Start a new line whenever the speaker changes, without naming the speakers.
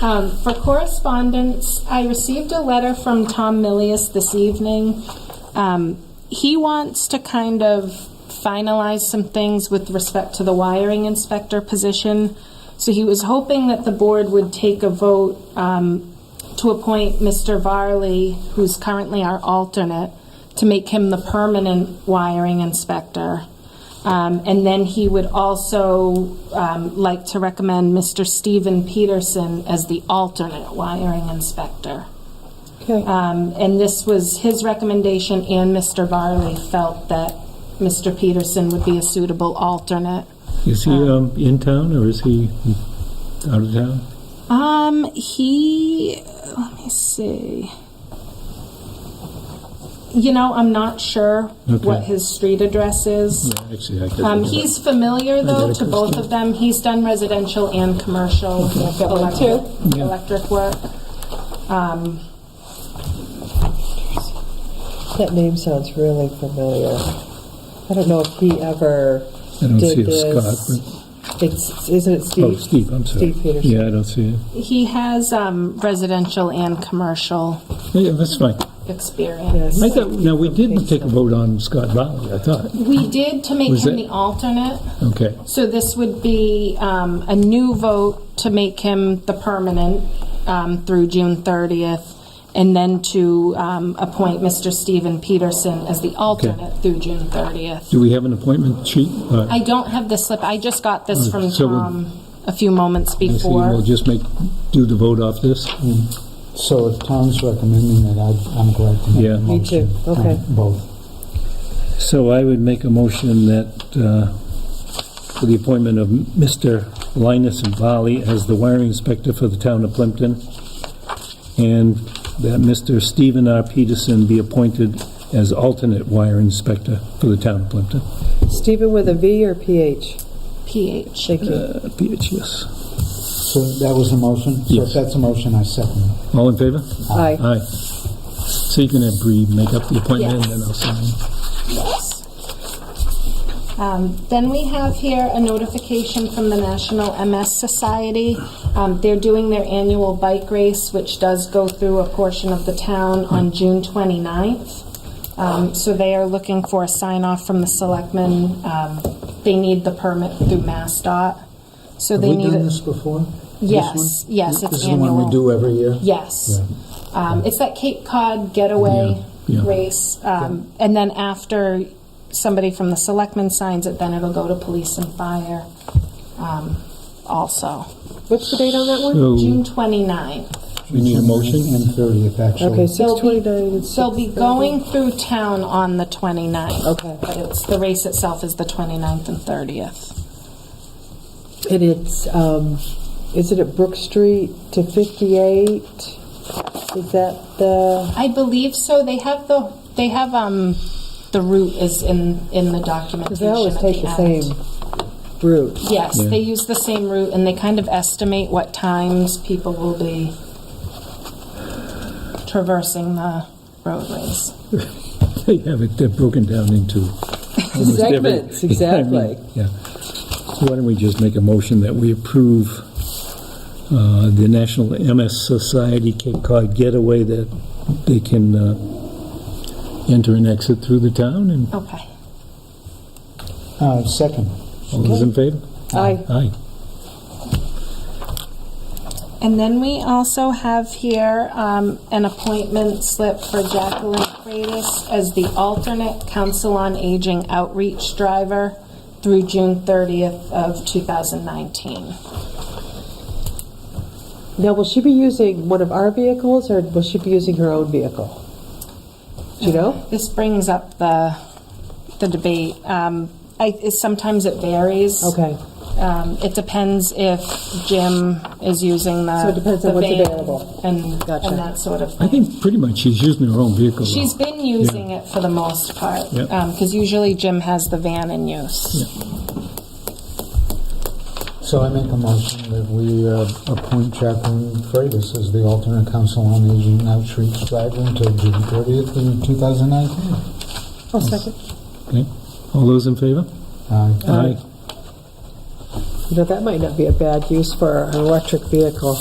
Um, For correspondence, I received a letter from Tom Millius this evening. Um, He wants to kind of finalize some things with respect to the wiring inspector position. So he was hoping that the board would take a vote um, to appoint Mr. Varley, who's currently our alternate, to make him the permanent wiring inspector. Um, And then he would also um, like to recommend Mr. Steven Peterson as the alternate wiring inspector.
Okay.
Um, And this was his recommendation, and Mr. Varley felt that Mr. Peterson would be a suitable alternate.
Is he um, in town or is he out of town?
Um, he. Let me see. You know, I'm not sure what
Okay.
his street address is.
Yeah, Actually, I
Um,
could.
he's familiar though to both of them. He's done residential and commercial electric,
Yeah.
electric work. Um,
That name sounds really familiar. I don't know if he ever
I don't see
did
if
this.
Scott,
It's, isn't it
but, oh,
Steve?
Steve, I'm sorry.
Steve Peterson.
Yeah, I don't see it.
he has um, residential and commercial
Yeah, that's fine.
experience.
I thought, now, we didn't take a vote on Scott Rowley, I thought.
We did to make
Was
him
it-
the alternate.
Okay,
So this would be um, a new vote to make him the permanent um, through June 30th, and then to um, appoint Mr. Steven Peterson as the alternate through June 30th.
do we have an appointment sheet? Uh,
I don't have the slip, I just got this from
So we'll-
Tom a few moments
I see. We'll
before.
just make, do the vote off this?
So if Tom's recommending that, I'd- I'm glad to make
Yeah.
a
Me
motion.
too. Okay.
on Both.
So I would make a motion that, uh, for the appointment of Mr. Linus Valley as the wiring inspector for the town of Plimpton, and that Mr. Stephen R. Peterson be appointed as alternate wire inspector for the town of Plimpton.
Stephen with a V or PH?
PH.
Thank you.
Uh, PHS.
So that was the motion? So
Yes.
if that's a motion, I second it.
All in favor?
Aye.
Aye. So you can have Bree make up the appointment, and then I'll sign.
Yes. Um, Then we have here a notification from the National MS Society. Um, They're doing their annual bike race, which does go through a portion of the town on June 29th. Um, So they are looking for a sign-off from the selectmen. Um, They need the permit through MassDOT, so
Have
they
we
need
done
it.
this before? This
Yes,
one?
yes,
This
it's
is the one we
annual.
do every year?
Yes. Um, It's that Cape Cod getaway
Yeah, yeah.
race. Um, And then after somebody from the selectmen signs it, then it'll go to police and fire um, also.
What's the date on that one?
So
June 29th.
we need a motion?
And 30th,
Okay,
They'll
actually.
be-
629 and
They'll be
6:30.
going through town on the 29th.
Okay.
But it's, the race itself is the 29th and 30th.
And it's, um, is it at Brook Street to 58? Is that the,
I believe so. They have the, they have, um, the route is in, in the
because
documentation.
they always
of
take the
act.
same route.
Yes,
Yeah.
they use the same route and they kind of estimate what times people will be traversing the roadways.
They have it, they're broken down into almost every-
Segments,
Yeah, I mean,
exactly.
Yeah. So why don't we just make a motion that we approve uh, the National MS Society Cape Cod Getaway, that they can uh, enter and exit through the town, and
Okay.
Uh, Second.
all those in favor?
Aye.
Aye.
And then we also have here um, an appointment slip for Jacqueline Freitas as the alternate Council on Aging outreach driver through June 30th of 2019.
Now, will she be using one of our vehicles, or will she be using her own vehicle? Do you know?
This brings up the, the debate. Um, I, it- sometimes it varies.
Okay,
Um, It depends if Jim is using the.
So it depends
the
on what's
van
available.
And,
Gotcha.
and that sort of
I
thing.
think pretty much she's using her own vehicle. though.
She's been using it for the most part.
Yep.
Because usually Jim has the van in use.
So I make a motion that we uh, appoint Jacqueline Freitas as the alternate council on aging outreach driver until June 30th in 2019.
I'll second.
Okay. All those in favor?
Aye.
Aye. You know, that might not be a bad use for an electric vehicle.